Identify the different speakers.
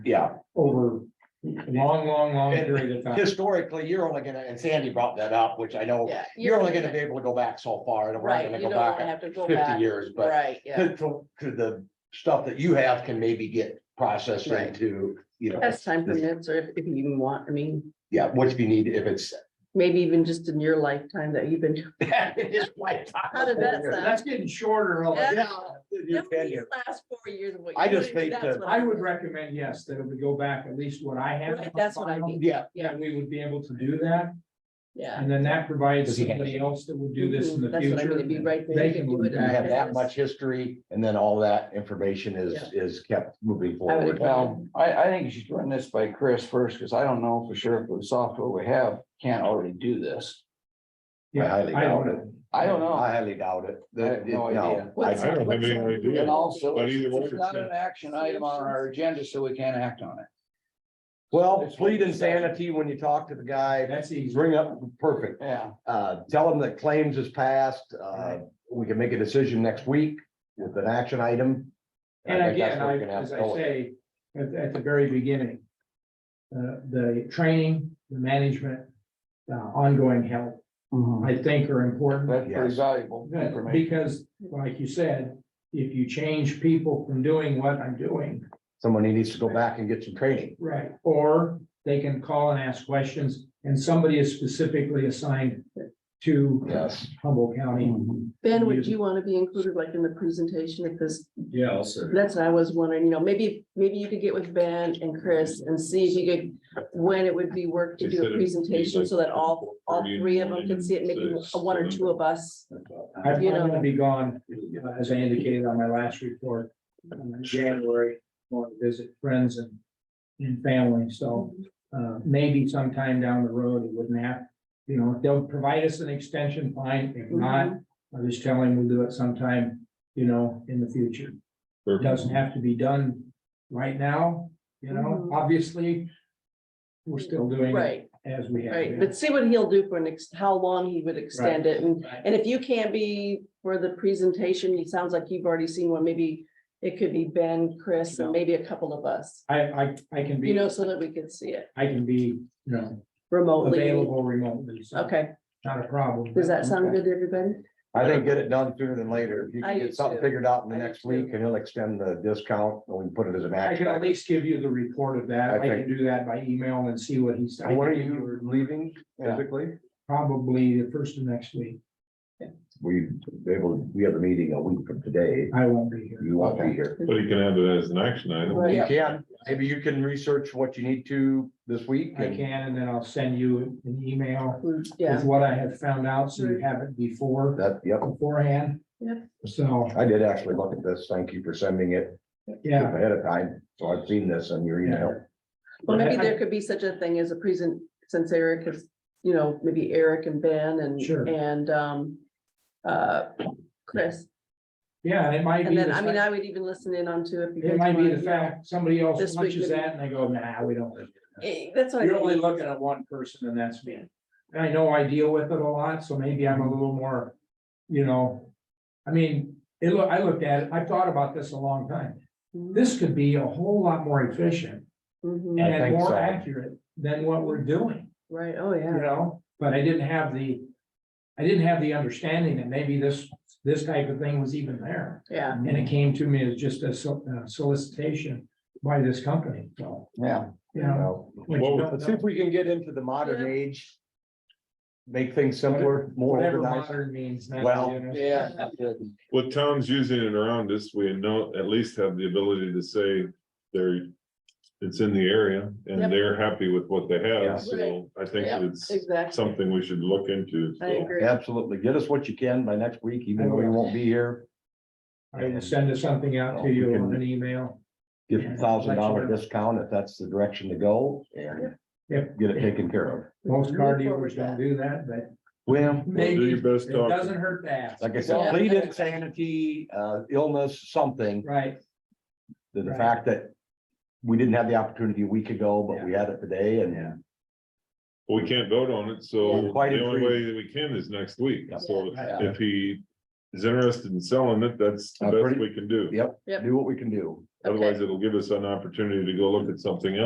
Speaker 1: Yeah,
Speaker 2: over a long, long, long period of time.
Speaker 1: historically, you're only gonna, and Sandy brought that up, which I know,
Speaker 3: Yeah.
Speaker 1: you're only gonna be able to go back so far, and we're not
Speaker 3: Right,
Speaker 1: gonna
Speaker 3: you
Speaker 1: go
Speaker 3: don't wanna
Speaker 1: back
Speaker 3: have to go
Speaker 1: fifty
Speaker 3: back,
Speaker 1: years, but.
Speaker 3: right, yeah,
Speaker 1: To, to, to the stuff that you have can maybe get processed
Speaker 3: Right.
Speaker 1: into, you know,
Speaker 4: As time permits, or if, if you even want, I mean,
Speaker 1: yeah, what you need if it's.
Speaker 4: maybe even just in your lifetime that you've been.
Speaker 1: It's like-
Speaker 4: How did that sound?
Speaker 2: That's getting shorter. all the
Speaker 4: Yeah.
Speaker 2: time.
Speaker 1: You can, yeah.
Speaker 4: Last four years. of what
Speaker 1: I
Speaker 4: you
Speaker 1: just
Speaker 4: do,
Speaker 1: think
Speaker 4: that's
Speaker 1: that-
Speaker 4: what
Speaker 2: I would recommend, yes, that we go back at least what I have.
Speaker 4: Right, that's what I mean.
Speaker 1: Yeah,
Speaker 2: Yeah, we would be able to do that,
Speaker 4: Yeah.
Speaker 2: and then that provides
Speaker 1: Does he have-
Speaker 2: somebody else that would do this in the
Speaker 4: Mm-hmm, That's what I mean,
Speaker 2: future.
Speaker 4: it'd be right there,
Speaker 2: They
Speaker 4: you
Speaker 2: can
Speaker 4: could
Speaker 2: look
Speaker 4: do
Speaker 2: at
Speaker 4: it.
Speaker 1: you have
Speaker 2: that.
Speaker 1: that much history, and then all that information is, is kept moving
Speaker 4: I would
Speaker 1: forward.
Speaker 4: agree.
Speaker 5: Well,
Speaker 1: um,
Speaker 5: I, I think you should run this by Chris first, because I don't know for sure if the software we have can't already do this.
Speaker 1: I
Speaker 2: Yeah,
Speaker 1: highly
Speaker 2: I
Speaker 1: doubt
Speaker 2: don't
Speaker 1: it.
Speaker 2: know.
Speaker 5: I don't know.
Speaker 1: I highly doubt it.
Speaker 5: I have no idea.
Speaker 1: I
Speaker 4: What's-
Speaker 6: I don't have any
Speaker 4: what's-
Speaker 6: idea.
Speaker 5: And also,
Speaker 6: But either way,
Speaker 5: it's not
Speaker 6: it's-
Speaker 5: an action item on our agenda, so we can't act on it.
Speaker 1: Well, plead insanity when you talk to the guy,
Speaker 2: That's easy.
Speaker 1: bring up, perfect,
Speaker 5: Yeah.
Speaker 1: uh, tell him that claims is passed, uh, we can make a decision next week with an action item.
Speaker 2: And
Speaker 1: I think that's
Speaker 2: again,
Speaker 1: where
Speaker 2: I,
Speaker 1: you're gonna have
Speaker 2: as
Speaker 1: to
Speaker 2: I
Speaker 1: go with it.
Speaker 2: say, at, at the very beginning. Uh, the training, the management, the ongoing help, I think are important.
Speaker 5: That's pretty
Speaker 1: Yes.
Speaker 5: valuable information.
Speaker 2: Because, like you said, if you change people from doing what I'm doing.
Speaker 1: Someone needs to go back and get some training.
Speaker 2: Right. Or they can call and ask questions, and somebody is specifically assigned to
Speaker 1: Yes.
Speaker 2: Humboldt County.
Speaker 4: Ben, would you want to be included like in the presentation at this?
Speaker 7: Yeah, also.
Speaker 4: That's what I was wondering, you know, maybe, maybe you could get with Ben and Chris and see if you could, when it would be work to do a presentation so that all, all three of them can see it, maybe one or two of us.
Speaker 2: I'm I'm
Speaker 4: You know.
Speaker 2: gonna be gone, uh, as I indicated on my last report, uh, in January, going to visit friends and, and family, so, uh, maybe sometime down the road, it wouldn't have, you know, if they'll provide us an extension, fine,
Speaker 4: Mhm.
Speaker 2: if not, I was telling we'll do it sometime, you know, in the future. It doesn't have to be done right now, you know,
Speaker 4: Mhm.
Speaker 2: obviously, we're still doing it
Speaker 4: Right,
Speaker 2: as we have.
Speaker 4: right,
Speaker 2: been.
Speaker 4: but see what he'll do for an, ex- how long he would extend it and And if you can't be for the presentation, it sounds like you've already seen one, maybe it could be Ben, Chris, and maybe a couple of us.
Speaker 2: I, I, I can
Speaker 4: You
Speaker 2: be,
Speaker 4: know, so that we can see it
Speaker 2: I can be, you know,
Speaker 4: remotely.
Speaker 2: available remotely, so.
Speaker 4: Okay,
Speaker 2: Not a problem.
Speaker 4: does that sound good to everybody?
Speaker 1: I think get it done sooner than later. If you
Speaker 4: I
Speaker 1: can
Speaker 4: do
Speaker 1: get something
Speaker 4: too.
Speaker 1: figured out in the
Speaker 4: I do
Speaker 1: next
Speaker 4: too.
Speaker 1: week and he'll extend the discount and we can put it as an
Speaker 2: I
Speaker 1: action.
Speaker 2: can at
Speaker 1: item.
Speaker 2: least give you the report of that.
Speaker 1: I
Speaker 2: I can do that by email and see what he's.
Speaker 1: When are you leaving physically?
Speaker 2: Probably the first of next week.
Speaker 1: We, they will, we have a meeting a week from today.
Speaker 2: I won't be here.
Speaker 1: You won't be here.
Speaker 6: But he can have it as an action item.
Speaker 4: Right.
Speaker 1: You can, maybe you can research what you need to this week.
Speaker 2: I
Speaker 1: and-
Speaker 2: can, and then I'll send you an email
Speaker 4: Yeah,
Speaker 2: with what I have found out, so you have it before,
Speaker 1: That, yep,
Speaker 2: beforehand.
Speaker 4: Yep.
Speaker 2: So,
Speaker 1: I did actually look at this. Thank you for sending it
Speaker 2: yeah,
Speaker 1: ahead of time. So I've seen this in your email.
Speaker 4: well, maybe there could be such a thing as a present, since Eric is, you know, maybe Eric and Ben and,
Speaker 2: Sure.
Speaker 4: and, um, uh, Chris.
Speaker 2: yeah, and it might be,
Speaker 4: And then,
Speaker 2: the
Speaker 4: I mean,
Speaker 2: fact-
Speaker 4: I would even listen in on to if you.
Speaker 2: it
Speaker 4: guys
Speaker 2: might be
Speaker 4: wanna-
Speaker 2: the fact, somebody else
Speaker 4: This week
Speaker 2: punches
Speaker 4: maybe.
Speaker 2: that and they go, nah, we don't.
Speaker 4: Eh, That's what I.
Speaker 2: You're only
Speaker 4: mean.
Speaker 2: looking at one person and that's me. And I know I deal with it a lot, so maybe I'm a little more, you know. I mean, it, loo- I looked at it, I thought about this a long time. This could be a whole lot more efficient
Speaker 4: Mhm,
Speaker 1: I
Speaker 2: and
Speaker 1: think so.
Speaker 2: more accurate than what we're doing,
Speaker 4: Right, oh,
Speaker 2: you
Speaker 4: yeah.
Speaker 2: know, but I didn't have the. I didn't have the understanding that maybe this, this type of thing was even there.
Speaker 4: Yeah,
Speaker 2: And
Speaker 1: Mm-hmm.
Speaker 2: it came to me as just a so- uh, solicitation by this company, so,
Speaker 5: Yeah,
Speaker 2: you know.
Speaker 1: Well,
Speaker 2: what you
Speaker 6: Well,
Speaker 2: don't
Speaker 1: Let's see
Speaker 2: know.
Speaker 1: if we can get into the modern
Speaker 4: Yeah.
Speaker 1: age. Make things simpler, more
Speaker 2: Whatever
Speaker 1: organized.
Speaker 2: modern means now.
Speaker 1: Well,
Speaker 2: you know.
Speaker 5: yeah. good.
Speaker 6: With towns using it around us, we know, at least have the ability to say they're, it's in the area
Speaker 4: Yep.
Speaker 6: and they're happy with what they
Speaker 1: Yeah.
Speaker 6: have. So I think
Speaker 4: Yep,
Speaker 6: it's
Speaker 4: exactly.
Speaker 6: something we should look into.
Speaker 4: I
Speaker 6: so.
Speaker 4: agree.
Speaker 1: Absolutely. Get us what you can by next week, even though you won't be here.
Speaker 2: I will send something out to you on an email.
Speaker 1: Give a thousand dollar discount if that's the direction to go and
Speaker 2: Yep.
Speaker 1: get it taken care of.
Speaker 2: Most car dealers don't do that, but
Speaker 1: Well,
Speaker 6: Well, Do
Speaker 2: maybe
Speaker 6: your
Speaker 2: it
Speaker 6: best
Speaker 2: doesn't
Speaker 6: talking.
Speaker 2: hurt to ask.
Speaker 1: like I
Speaker 5: Yeah.
Speaker 1: said, plead insanity, uh, illness, something,
Speaker 2: Right,
Speaker 1: the the
Speaker 2: Right.
Speaker 1: fact that we didn't have the opportunity a week ago, but we had it today
Speaker 2: Yeah.
Speaker 1: and
Speaker 6: We can't vote on it,
Speaker 1: Yeah.
Speaker 6: so
Speaker 1: Quite
Speaker 6: the only
Speaker 1: agree.
Speaker 6: way that we can is next week. So
Speaker 2: Yeah.
Speaker 6: if he is interested in selling it, that's the
Speaker 5: Uh,
Speaker 6: best
Speaker 5: pretty-
Speaker 6: we can do.
Speaker 5: Yep,
Speaker 4: Yep.
Speaker 5: do what we can do.
Speaker 6: Otherwise, it'll give us an opportunity to go look at something else.